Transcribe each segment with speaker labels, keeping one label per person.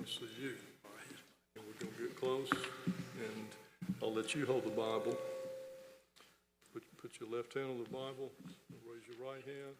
Speaker 1: this is you. All right. And we're going to get close, and I'll let you hold the Bible. Put, put your left hand on the Bible, raise your right hand,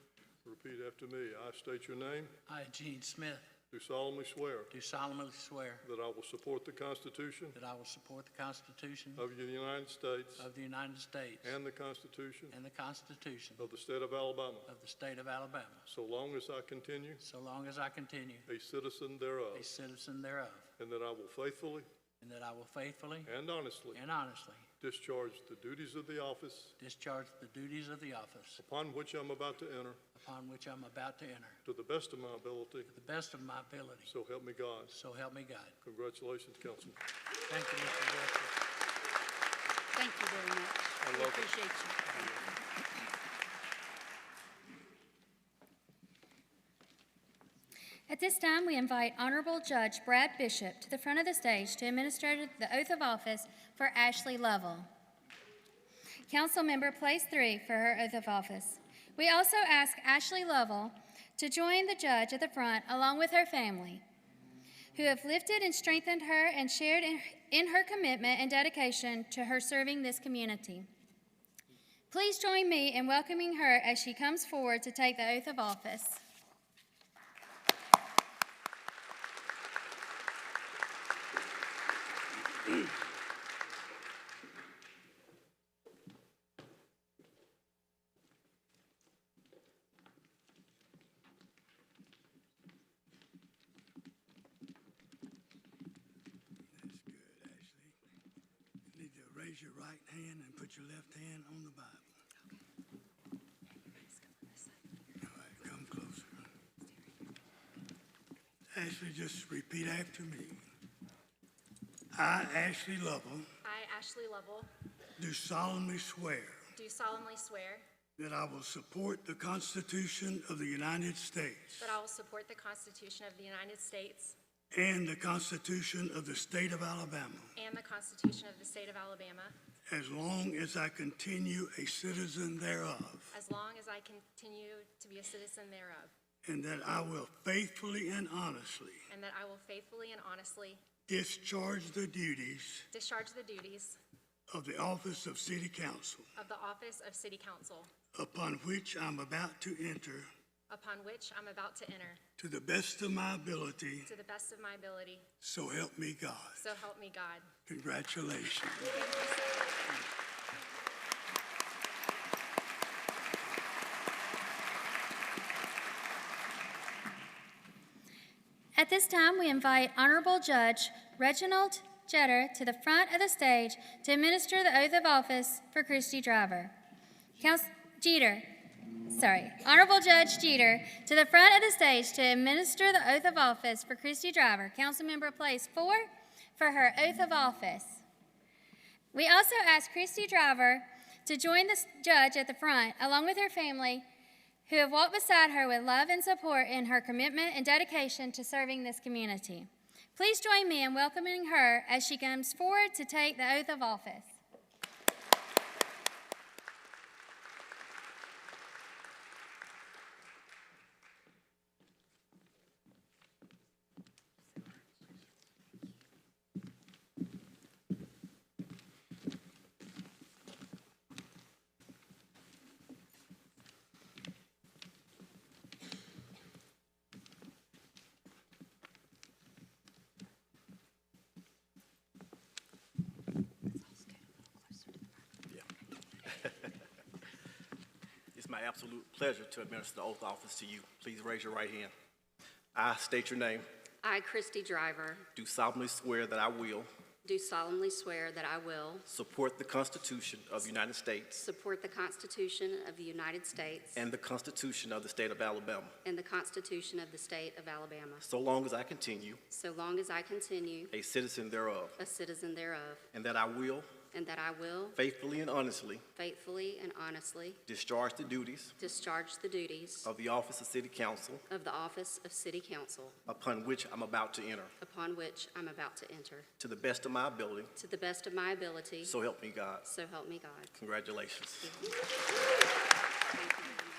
Speaker 1: repeat after me. I state your name,
Speaker 2: I, Gene Smith,
Speaker 1: do solemnly swear
Speaker 2: do solemnly swear
Speaker 1: that I will support the Constitution
Speaker 2: that I will support the Constitution
Speaker 1: of the United States
Speaker 2: of the United States
Speaker 1: and the Constitution
Speaker 2: and the Constitution
Speaker 1: of the State of Alabama,
Speaker 2: of the State of Alabama,
Speaker 1: so long as I continue
Speaker 2: so long as I continue
Speaker 1: a citizen thereof,
Speaker 2: a citizen thereof,
Speaker 1: and that I will faithfully
Speaker 2: and that I will faithfully
Speaker 1: and honestly
Speaker 2: and honestly
Speaker 1: discharge the duties of the office
Speaker 2: discharge the duties of the office
Speaker 1: upon which I'm about to enter
Speaker 2: upon which I'm about to enter
Speaker 1: to the best of my ability,
Speaker 2: to the best of my ability.
Speaker 1: so help me God.
Speaker 2: So help me God.
Speaker 1: Congratulations, Councilman.
Speaker 2: Thank you, Mr. Wilson.
Speaker 3: Thank you very much. I
Speaker 1: love it.
Speaker 3: Appreciate you. Thank you.
Speaker 4: At this time, we invite Honorable Judge Brad Bishop to the front of the stage to administer the oath of office for Ashley Lovell. Councilmember Place Three for her oath of office. We also ask Ashley Lovell to join the judge at the front along with her family, who have lifted and strengthened her and shared in- in her commitment and dedication to her serving this community. Please join me in welcoming her as she comes forward to take the oath of office.
Speaker 5: That's good, Ashley. You need to raise your right hand and put your left hand on the Bible. All right, come closer. Ashley, just repeat after me. I, Ashley Lovell,
Speaker 6: I, Ashley Lovell,
Speaker 5: do solemnly swear
Speaker 6: do solemnly swear
Speaker 5: that I will support the Constitution of the United States
Speaker 6: that I will support the Constitution of the United States
Speaker 5: and the Constitution of the State of Alabama
Speaker 6: and the Constitution of the State of Alabama
Speaker 5: as long as I continue a citizen thereof.
Speaker 6: as long as I continue to be a citizen thereof,
Speaker 5: And that I will faithfully and honestly
Speaker 6: and that I will faithfully and honestly
Speaker 5: discharge the duties
Speaker 6: discharge the duties
Speaker 5: of the office of City Council
Speaker 6: of the office of City Council
Speaker 5: upon which I'm about to enter
Speaker 6: upon which I'm about to enter
Speaker 5: to the best of my ability,
Speaker 6: to the best of my ability.
Speaker 5: so help me God.
Speaker 6: So help me God.
Speaker 5: Congratulations.
Speaker 4: At this time, we invite Honorable Judge Reginald Jeter to the front of the stage to administer the oath of office for Christy Driver. Couns- Jeter, sorry, Honorable Judge Jeter to the front of the stage to administer the oath of office for Christy Driver, Councilmember Place Four, for her oath of office. We also ask Christy Driver to join the s- judge at the front, along with her family, who have walked beside her with love and support in her commitment and dedication to serving this community. Please join me in welcoming her as she comes forward to take the oath of office.
Speaker 7: It's my absolute pleasure to administer the oath of office to you. Please raise your right hand. I state your name.
Speaker 8: I, Christy Driver,
Speaker 7: Do solemnly swear that I will
Speaker 8: do solemnly swear that I will
Speaker 7: support the Constitution of the United States
Speaker 8: support the Constitution of the United States
Speaker 7: and the Constitution of the State of Alabama
Speaker 8: and the Constitution of the State of Alabama,
Speaker 7: so long as I continue
Speaker 8: so long as I continue
Speaker 7: a citizen thereof,
Speaker 8: a citizen thereof,
Speaker 7: and that I will
Speaker 8: and that I will
Speaker 7: faithfully and honestly
Speaker 8: faithfully and honestly
Speaker 7: discharge the duties
Speaker 8: discharge the duties
Speaker 7: of the office of City Council
Speaker 8: of the office of City Council
Speaker 7: upon which I'm about to enter
Speaker 8: upon which I'm about to enter,
Speaker 7: to the best of my ability.
Speaker 8: to the best of my ability,
Speaker 7: So help me God.
Speaker 8: so help me God.
Speaker 7: Congratulations.
Speaker 8: Thank you very much.